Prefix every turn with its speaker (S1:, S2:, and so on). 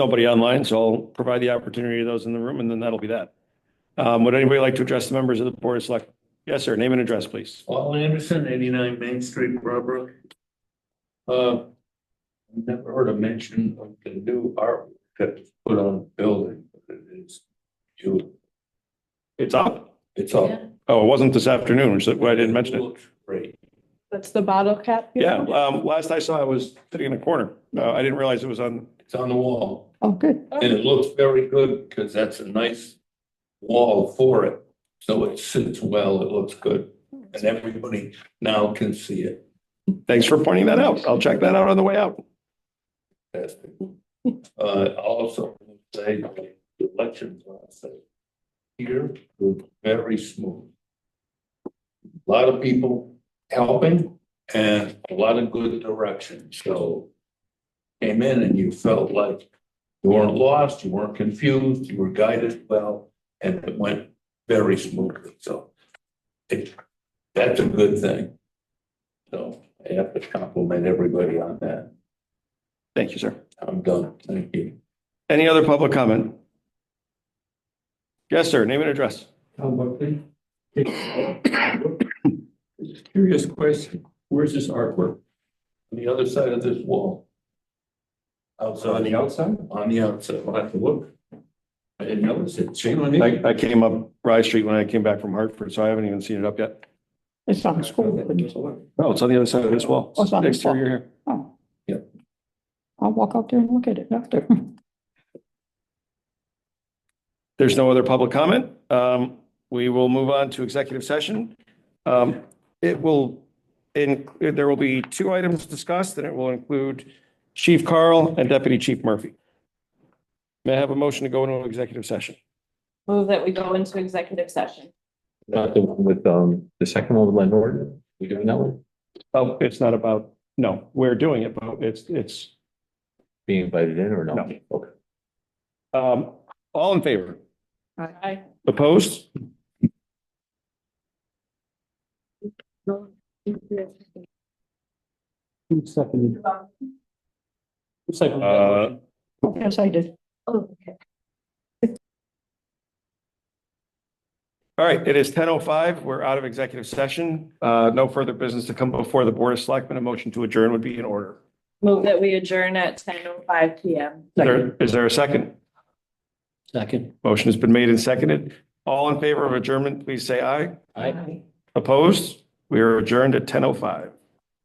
S1: nobody online, so I'll provide the opportunity to those in the room, and then that'll be that. Um, would anybody like to address the members of the Board of Select? Yes, sir. Name and address, please.
S2: Paul Anderson, eighty-nine Main Street, Barbara. Uh, never heard a mention of the new art that's put on the building, but it is you,
S1: It's up.
S2: it's all.
S1: Oh, it wasn't this afternoon, which is why I didn't mention it.
S2: Looks Great.
S3: That's the bottle cap?
S1: Yeah, um, last I saw it was sitting in a corner. Uh, I didn't realize it was on,
S2: It's on the wall,
S3: Oh, good.
S2: and it looks very good, because that's a nice wall for it. So it sits well, it looks good, and everybody now can see it.
S1: thanks for pointing that out. I'll check that out on the way out.
S2: Fantastic. Uh, also, say, the elections last night. Here, were very smooth. A Lot of people helping and a lot of good direction, so. Came in and you felt like you weren't lost, you weren't confused, you were guided well, and it went very smoothly, so. It, that's a good thing. So I have to compliment everybody on that.
S1: Thank you, sir.
S2: I'm done, thank you.
S1: Any other public comment? Yes, sir. Name and address.
S4: Tom Buckley. Just a Curious question, where's this artwork?
S2: On The other side of this wall. Outside,
S4: outside?
S2: on the outside,
S4: I'll have to look. I didn't notice it, shame on me.
S1: I, I came up Rye Street when I came back from Hartford, so I haven't even seen it up yet.
S3: It's on school. buildings.
S4: Well,
S1: No, Oh, it's on the other side of this wall.
S3: Oh, it's on this
S1: Exterior here.
S3: Oh.
S2: Yep.
S3: I'll walk out there and look at it after.
S1: There's no other public comment. Um, we will move on to executive session. Um, it will, in, there will be two items discussed, and it will include Chief Carl and Deputy Chief Murphy. May I have a motion to go into an executive session?
S5: Move that we go into executive session.
S6: Not the one with, um, the second one with landlord, we doing that one,
S1: Oh, it's not about, no, we're doing it, but it's, it's,
S6: being invited in or not?
S1: No.
S6: Okay.
S1: um, all in favor?
S5: Aye.
S1: Opposed? Uh,
S3: Yes, I did.
S1: All right, it is ten oh five. We're out of executive session. Uh, no further business to come before the Board of Selectmen. A motion to adjourn would be in order.
S5: Move that we adjourn at ten oh five P M.
S1: Is there- Is there a second?
S4: Second.
S1: Motion has been made and seconded. All in favor of adjournment, please say aye.
S4: Aye.
S1: Opposed? We are adjourned at ten oh five.